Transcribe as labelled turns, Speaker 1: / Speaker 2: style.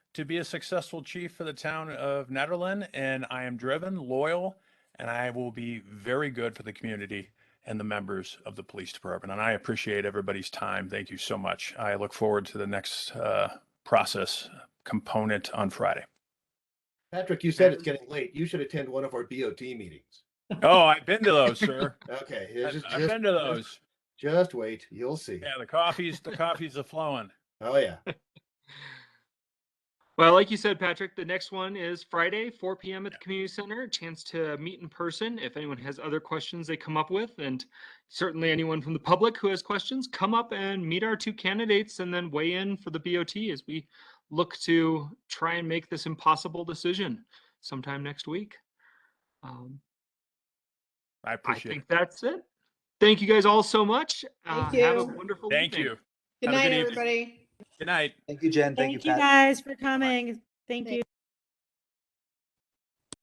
Speaker 1: to be a successful chief for the town of Netherland, and I am driven, loyal, and I will be very good for the community and the members of the police department. And I appreciate everybody's time. Thank you so much. I look forward to the next uh, process component on Friday.
Speaker 2: Patrick, you said it's getting late. You should attend one of our BOT meetings.
Speaker 1: Oh, I've been to those, sir.
Speaker 2: Okay, it's
Speaker 1: I've,
Speaker 2: just,
Speaker 1: I've
Speaker 2: just-
Speaker 1: been to
Speaker 2: just-
Speaker 1: those.
Speaker 2: Just wait, you'll see.
Speaker 1: Yeah, the coffees, the coffees are flowing.
Speaker 2: Oh yeah.
Speaker 3: Well, like you said, Patrick, the next one is Friday, 4 p.m. at the community center. A chance to meet in person if anyone has other questions they come up with, and certainly anyone from the public who has questions, come up and meet our two candidates and then weigh in for the BOT as we look to try and make this impossible decision sometime next week. Um,
Speaker 1: I
Speaker 3: I
Speaker 1: appreciate
Speaker 3: think
Speaker 1: it.
Speaker 3: that's it. Thank you guys all so much. Uh,
Speaker 4: Thank
Speaker 3: Have a
Speaker 4: you.
Speaker 3: wonderful
Speaker 1: Thank
Speaker 3: evening.
Speaker 1: you. Have
Speaker 4: Good
Speaker 1: a
Speaker 4: night,
Speaker 1: good evening.
Speaker 4: everybody.
Speaker 1: Good night.
Speaker 5: Thank you, Jen. Thank you, Pat.
Speaker 6: guys for coming. Thank you.